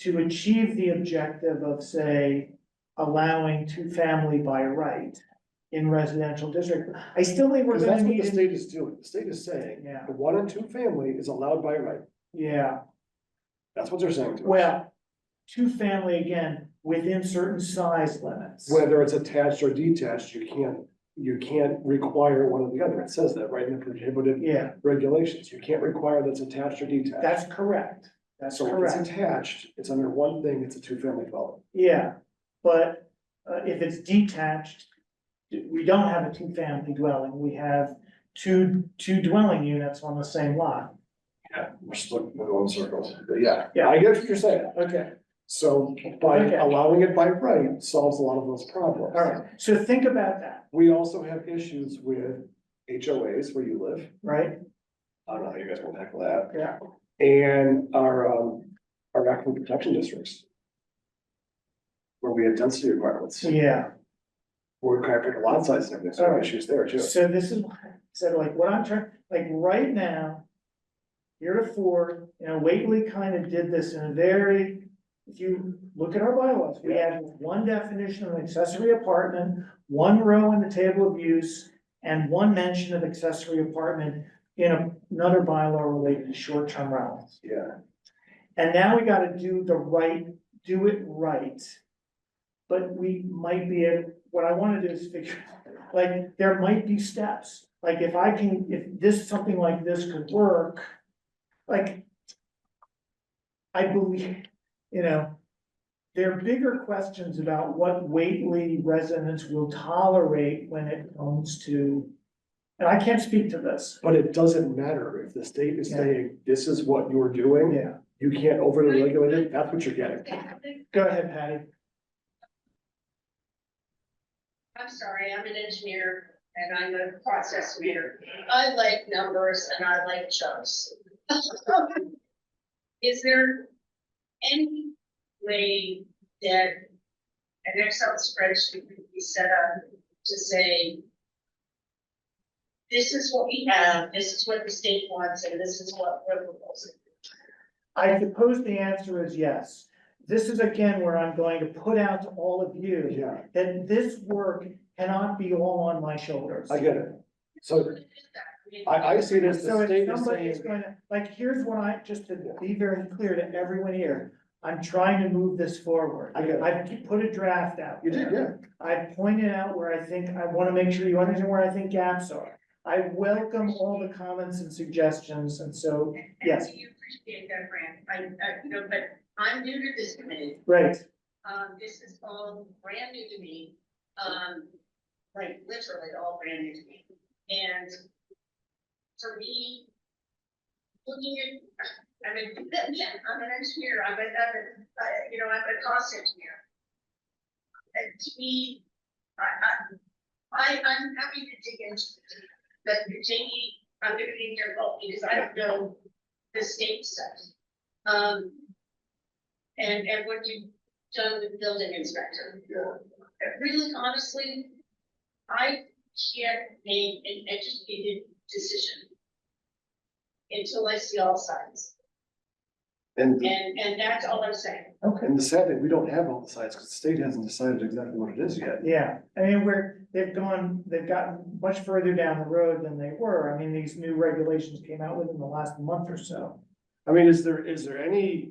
to achieve the objective of, say, allowing two-family by right in residential district, I still think we're Cause gonna that's what need. the state is doing, the state is saying, Yeah, the one and two family is allowed by right, yeah, that's what they're saying to us. well, two-family again, within certain size limits. Whether it's attached or detached, you can't, you can't require one or the other, it says that right in the prohibited Yeah, regulations, you can't require that's attached or detached. that's correct, that's So if correct. it's attached, it's under one thing, it's a two-family dwelling. Yeah, but uh if it's detached, we don't have a two-family dwelling, we have two, two dwelling units on the same lot. Yeah. We're still going in circles, but yeah. Yeah. I get what you're saying, Okay. so by Okay. allowing it by right solves a lot of those problems. All right, so think about that, We also have issues with HOAs where you live, right? I don't know how you guys will tackle that, Yeah. and our, um, our aquifer protection districts. Where we have density requirements, Yeah, where we can't pick a lot size, and everything, so there are issues there too. so this is, why I said like what I'm trying, like right now. Heretofore, you know, Wakely kind of did this in a very, if you look at our bylaws, we have one definition of accessory apartment. one row in the table of use and one mention of accessory apartment in another bylaw related to short-term rentals. Yeah, And now we gotta do the right, do it right. But we might be, able- what I wanna do is figure, like, there might be steps, like if I can, if this, something like this could work, like. I believe, you know, there are bigger questions about what Whately residents will tolerate when it comes to. And I can't speak to this, but it doesn't matter if the state is Yeah. saying, this is what you're doing. yeah, You can't overly regulate it, that's what you're getting. go ahead, Patty, I'm sorry, I'm an engineer and I'm a process reader. I like numbers and I like chunks. Is there any way that an Excel spreadsheet could be set up to say, this is what we have, this is what the state wants, and this is what we're proposing? I suppose the answer is yes. This is again where I'm going to put out to all of you, Yeah, that this work cannot be all on my shoulders. I get it. So mean, I, I see it as So the if state is somebody is saying, going to, like, here's what I, just to be very clear to everyone here, I'm trying to move this forward. I get it. I've put a draft out. you did, there. yeah, I pointed out where I think, I wanna make sure you understand where I think gaps are. I welcome all the comments and suggestions, and so, yes. And do you appreciate that, Brand? I, I, you know, but I'm new to this committee. right, Um, this is all brand new to me, um, like literally all brand new to me. And for me, looking at, I mean, again, I'm an engineer, I'm a, I'm a, I- you know, I'm a cost engineer. And to me, I, I, I, I'm happy to dig into it, but Jamie, I'm gonna need your help because I don't know the state stuff. Um, and, and what you done with building inspector. Really honestly, I can't make an educated decision until I see all sides, and, and, and that's all I'm saying. okay. and the sad thing, we don't have all the sites, because the state hasn't decided exactly what it is yet. Yeah, I mean, we're, they've gone, they've gotten much further down the road than they were. I mean, these new regulations came out within the last month or so. I mean, is there, is there any?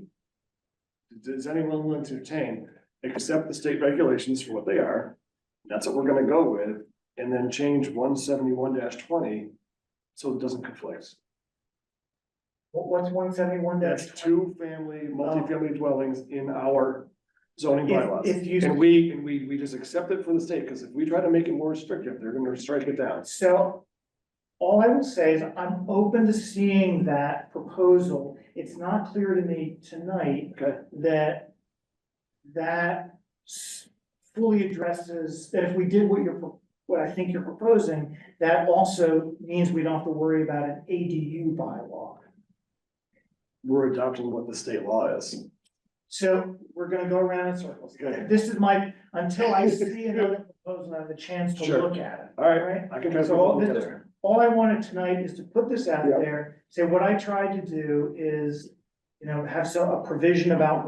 Does anyone want to entertain, accept the state regulations for what they are? That's what we're gonna go with, and then change one seventy-one twenty, so it doesn't conflict. What- What's one seventy-one That's two family, multifamily dwellings in our zoning If- bylaws. if you- And we, and we, we just accept it for the state, because if we try to make it more restrictive, they're gonna strike it down. So all I will say is I'm open to seeing that proposal. It's not clear to me tonight Okay. that that s- fully addresses, that if we did what you're, pro- what I think you're proposing, that also means we don't have to worry about an ADU bylaw. We're adopting what the state law is. So we're gonna go around in circles. Okay. This is my, until I see another proposal, I have the chance to Sure. look at All it, right, right? I can try to. So put it all all this- together. All I wanted tonight is to put this out Yeah. there, say what I tried to do is, you know, have some, a provision about